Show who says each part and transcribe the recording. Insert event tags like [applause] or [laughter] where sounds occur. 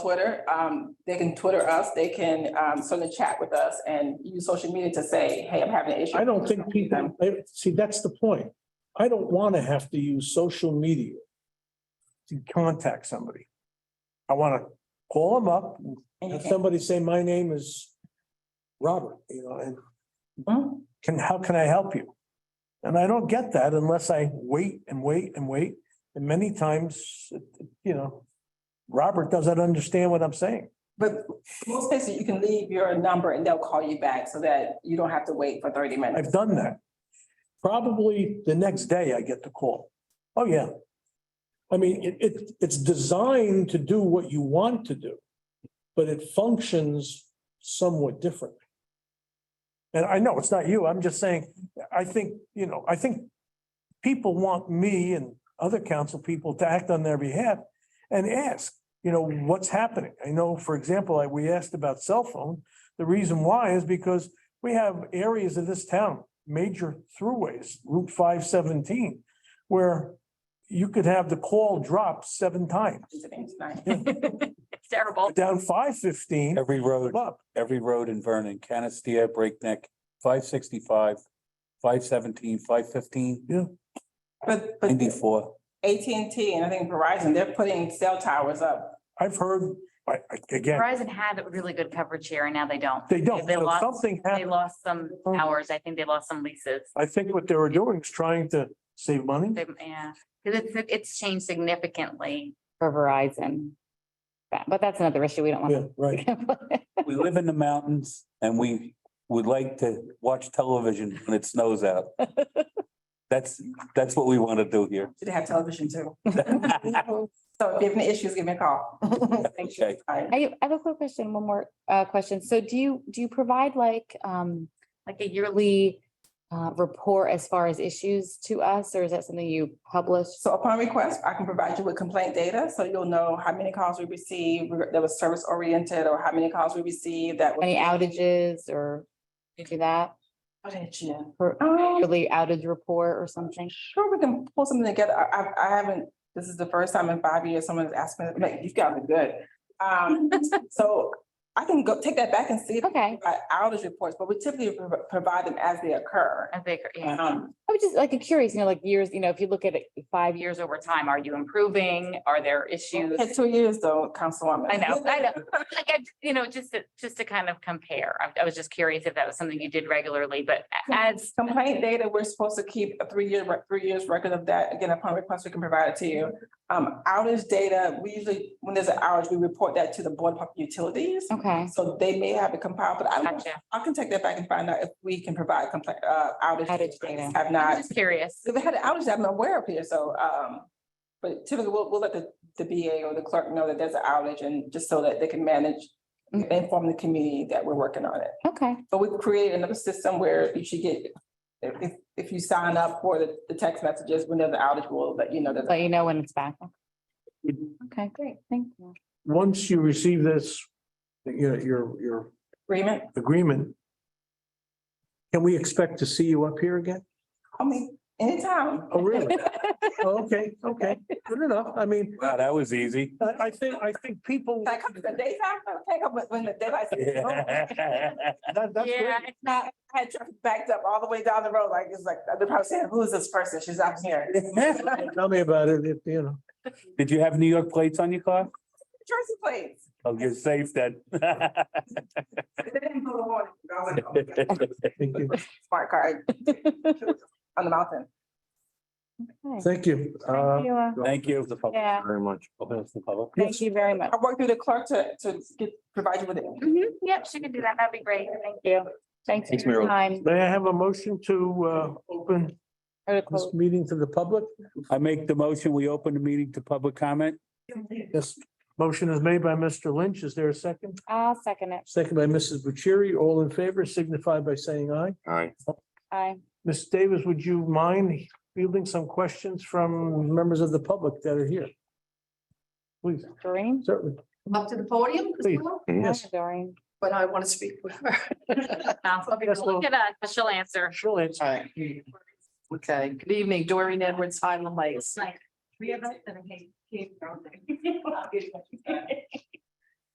Speaker 1: Twitter, um, they can Twitter us, they can, um, sort of chat with us and use social media to say, hey, I'm having an issue.
Speaker 2: I don't think people, I- see, that's the point. I don't want to have to use social media to contact somebody. I want to call them up,
Speaker 1: And you
Speaker 2: have
Speaker 1: can-
Speaker 2: somebody say, my name is Robert, you know, and
Speaker 1: Mhm.
Speaker 2: can, how can I help you? And I don't get that unless I wait and wait and wait. And many times, you know, Robert doesn't understand what I'm saying.
Speaker 1: But most places, you can leave your number and they'll call you back so that you don't have to wait for thirty minutes.
Speaker 2: I've done that. Probably the next day I get the call. Oh, yeah. I mean, it, it, it's designed to do what you want to do, but it functions somewhat differently. And I know it's not you. I'm just saying, I think, you know, I think people want me and other council people to act on their behalf and ask, you know, what's happening? I know, for example, I- we asked about cell phone. The reason why is because we have areas of this town, major throughways, Route five seventeen, where you could have the call drop seven times,
Speaker 1: Terrible.
Speaker 2: down five fifteen,
Speaker 3: Every road,
Speaker 2: up.
Speaker 3: every road in Vernon, Canastia, Breakneck, five sixty-five, five seventeen, five fifteen,
Speaker 1: But, but
Speaker 3: ninety-four.
Speaker 1: AT&T and I think Verizon, they're putting cell towers up.
Speaker 2: I've heard, I, I- again,
Speaker 4: Verizon had really good coverage here and now they don't.
Speaker 2: they don't,
Speaker 4: They
Speaker 2: So
Speaker 4: lost-
Speaker 2: something
Speaker 4: They
Speaker 2: happened. Oh.
Speaker 4: lost some hours. I think they lost some leases.
Speaker 2: I think what they were doing is trying to save money.
Speaker 4: They- Yeah, because it's, it's changed significantly for Verizon. But, but that's another issue. We don't
Speaker 2: Yeah,
Speaker 4: want
Speaker 5: [laughs]
Speaker 2: right.
Speaker 4: to.
Speaker 3: We live in the mountains and we would like to watch television when it
Speaker 2: [laughs]
Speaker 3: snows out. That's, that's what we want to do here.
Speaker 1: They have television too. [laughs] So if you have any issues, give me a call. [laughs] Thank you.
Speaker 3: Okay.
Speaker 1: Bye.
Speaker 5: I I have a quick question, one more uh question. So do you, do you provide like um, like a yearly uh report as far as issues to us, or is that something you publish?
Speaker 1: So upon request, I can provide you with complaint data, so you'll know how many calls we received that was service oriented, or how many calls we received that. were-
Speaker 5: Any outages or do that,
Speaker 1: What did you-
Speaker 5: or
Speaker 1: Um,
Speaker 4: Oh,
Speaker 5: yearly outage report or something?
Speaker 1: Sure, we can pull something together. I, I, I haven't, this is the first time in five years someone's asked me, like, you guys are good. Um,
Speaker 4: [laughs]
Speaker 1: so I can go take that back and see if
Speaker 5: Okay,
Speaker 1: I outage reports, but we typically pro- provide them as they occur.
Speaker 4: I think, yeah.
Speaker 1: Um,
Speaker 5: I was just like curious, you know, like years, you know, if you look at it five
Speaker 4: five
Speaker 5: years,
Speaker 4: years over time, are you improving? Are there issues?
Speaker 1: It took two years though, Councilwoman.
Speaker 4: I know, I know. Like, I, you know, just to, just to kind of compare. I, I was just curious if that was something you did regularly, but a- as,
Speaker 1: Complaint data, we're supposed to keep a three-year, rec- three years record of that. Again, upon request, we can provide it to you. Um, outage data, we usually, when there's an outage, we report that to the Board of Public Utilities.
Speaker 5: okay.
Speaker 1: So they may have it compiled, but I don't,
Speaker 4: gotcha.
Speaker 1: I can take that back and find out if we can provide complaint, uh, outage.
Speaker 5: Outage
Speaker 1: data.
Speaker 5: data.
Speaker 1: Have
Speaker 4: I'm
Speaker 1: not,
Speaker 4: just curious.
Speaker 1: so they had an outage that I'm aware of here, so, um, but typically we'll, we'll let the, the BA or the clerk know that there's an outage and just so that they can manage,
Speaker 5: Mhm.
Speaker 1: inform the community that we're working on it.
Speaker 5: Okay,
Speaker 1: But we created another system where you should get, if, if you sign up for the, the text messages, when there's an outage, we'll let you know that.
Speaker 5: let you know when it's back. Okay, great, thank you.
Speaker 2: Once you receive this, your, your, your
Speaker 1: Agreement,
Speaker 2: agreement, can we expect to see you up here again?
Speaker 1: I mean, anytime.
Speaker 2: Oh, [laughs] really? Oh, Okay, okay, good enough. I mean,
Speaker 3: Wow, that was easy.
Speaker 2: I, I think, I think [laughs] people.
Speaker 1: Like, come to the daytime, okay, come when- when the daylight.
Speaker 2: [laughs] That, that's
Speaker 4: Yeah,
Speaker 2: great.
Speaker 4: it's
Speaker 1: I I "Oh, had traffic backed up all the way down the road, like, it's like, they're probably saying, who is this person? She's out here.
Speaker 2: Tell me about it, if, you know.
Speaker 3: Did you have New York plates on your car?
Speaker 1: Jersey plates.
Speaker 3: Oh, you're safe then. [laughs]
Speaker 1: They didn't blow the horn. I was like, oh,
Speaker 2: Thank you.
Speaker 1: Smart card. On the mountain.
Speaker 5: Okay.
Speaker 2: Thank you.
Speaker 5: Thank you, uh,
Speaker 3: Thank you.
Speaker 5: Yeah.
Speaker 2: Very much.
Speaker 3: Open up to the public.
Speaker 5: Thank you very much.
Speaker 1: I worked through the clerk to, to get, provide you with it.
Speaker 4: Mhm. Yep, she can do that. That'd be great. Thank you.
Speaker 5: Thanks
Speaker 3: Thanks,
Speaker 5: for your
Speaker 3: Meryl.
Speaker 5: time.
Speaker 2: May I have a motion to uh, open
Speaker 5: Or to
Speaker 2: this
Speaker 5: close.
Speaker 2: meeting to the public?
Speaker 3: I make the motion, we open the meeting to public comment.
Speaker 2: This motion is made by Mr. Lynch. Is there a second?
Speaker 5: I'll second it.
Speaker 2: Second by Mrs. Bucieri. All in favor signify by saying aye.
Speaker 5: Aye.
Speaker 2: Ms. Davis, would you mind fielding some questions from members of the public that are here? Please,
Speaker 5: Doreen?
Speaker 2: certainly,
Speaker 6: up to the podium. as
Speaker 2: Please.
Speaker 6: well,
Speaker 2: yes.
Speaker 5: Hi, Doreen.
Speaker 6: But I want to speak with her.
Speaker 4: Sounds like
Speaker 2: Yes, well-
Speaker 4: Look at us, but she'll answer.
Speaker 2: She'll answer.
Speaker 6: Okay, good evening, Doreen Edwards, Highland Lakes.
Speaker 4: Nice.
Speaker 6: We have.